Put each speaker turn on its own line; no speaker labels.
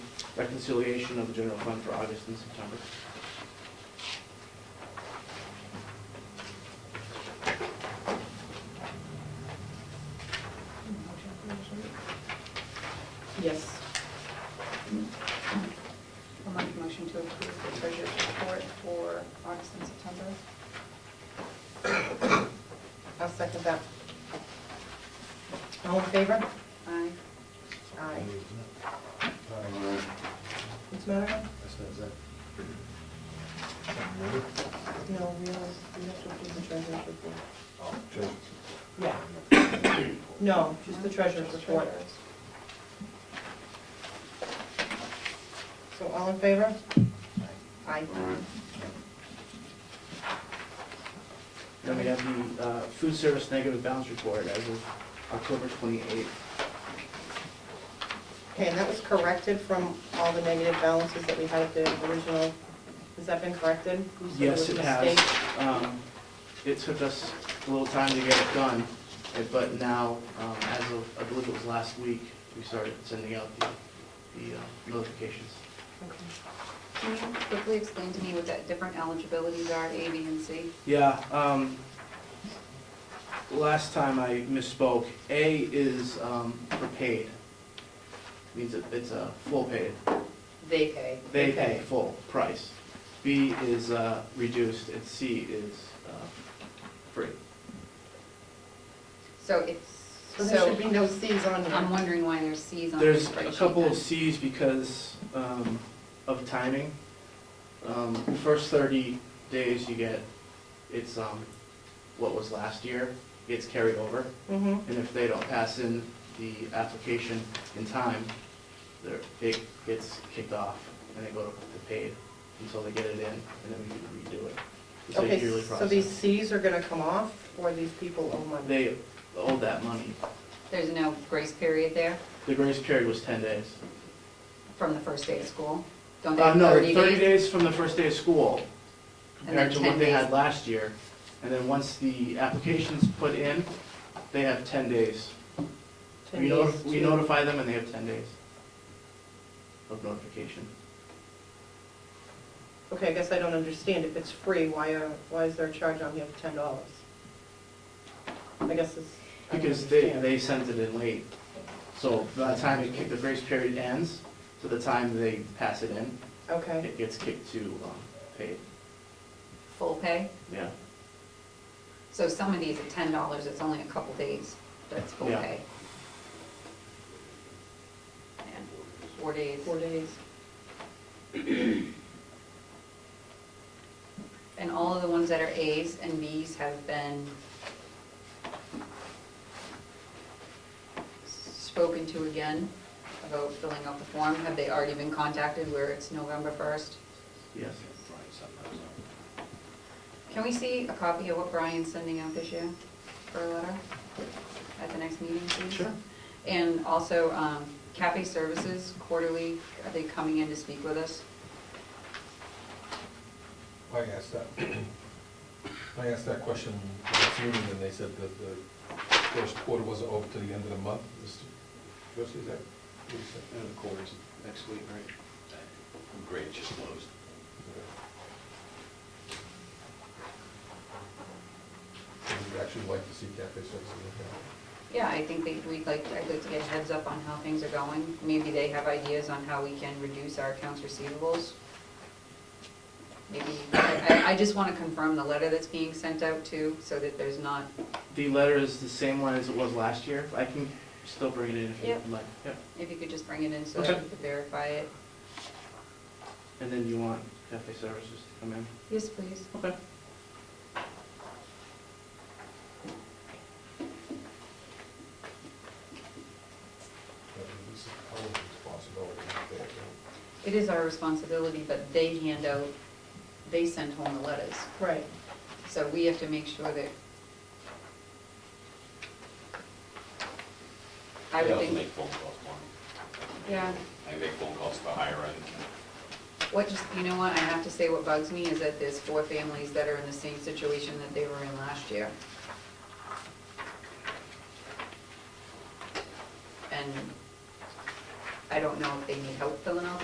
reconciliation of the general fund for August and September.
Yes. I'll make a motion to approve the treasurer's report for August and September.
I'll second that. All in favor?
Aye.
Aye.
All right.
What's the matter?
That's not that. Something new?
No, we have, we have to approve the treasurer's report.
Oh, just-
Yeah. No, just the treasurer's report. So all in favor? Aye.
Then we have the uh, food service negative balance report as of October 28th.
Okay, and that was corrected from all the negative balances that we had at the original, has that been corrected? You said there
Yes,
was a
it has.
mistake.
Um, It took us a little time to get it done, eh, but now, um, as of, I believe it was last week, we started sending out the the uh, notifications.
Okay.
Can you quickly explain to me what that different eligibilities are, A, B, and C?
Yeah, um, last time I misspoke. A is, um, for paid. Means it, it's a full paid.
They pay.
They pay full price. B is, uh, reduced, and C is, uh, free.
So it's,
So there
so
should be no Cs on
I'm
here.
wondering why there's Cs on the
There's
spreadsheet.
a couple
then.
of Cs because, um, of timing. Um, first thirty days you get, it's, um, what was last year, gets carried over.
Mm-hmm.
And if they don't pass in the application in time, their, it gets kicked off and they go to paid until they get it in and then we redo it. It's a yearly
Okay, so these
process.
Cs are gonna come off, or these people owe money?
They owe that money.
There's no grace period there
The grace period was ten days.
from the first day of school?
Oh,
Don't they
Uh,
have
no,
30
thirty
days?
days from the first day of school compared
then
to what
10
they had
days.
last year. And then once the application's put in, they have ten days.
Ten
We
days
notify, we
to-
notify them and they have ten days of notification.
Okay, I guess I don't understand, if it's free, why, are- why is there a charge on here of ten dollars? I guess it's, I don't
Because they,
understand.
they sent it in late. So by the time it kick- the grace period ends, to the time they pass it in,
Okay,
it gets kicked to um, paid.
Full pay?
Yeah.
So some of these are ten dollars, it's only a couple days, but it's full
Yeah.
pay. And Four days.
four days.
And all of the ones that are As and Bs have been spoken to again about filling out the form. Have they already been contacted where it's November 1st?
Yes.
Can we see a copy of what Brian's sending out this year for a letter at the next meeting, please?
Sure.
And also um, Cafe Services quarterly, are they coming in to speak with us?
I asked that, I asked that question last meeting, and they said that the first quarter wasn't over to the end of the month. Is- What's is that? what is that?
And the quarter's next week, right?
Great, just closed.
Would you actually like to see cafe services?
Yeah, I think they, we'd like, I'd like to get a heads up on how things are going. Maybe they have ideas on how we can reduce our accounts receivables. Maybe, I, I- I just want to confirm the letter that's being sent out too, so that there's not,
The letter is the same one as it was last year. I can still bring it in if
Yep.
you'd like. Yep.
if you could just bring it in so that we could verify it.
And then you want cafe services to come in?
Yes, please.
Okay.
This is always a possibility.
It is our responsibility, but they hand out, they send home the letters.
Right,
So we have to make sure that. I
They
would
also
think,
make phone calls, Marty.
yeah.
I make phone calls to higher end.
What just, you know what, I have to say what bugs me is that there's four families that are in the same situation that they were in last year. And I don't know if they need help filling out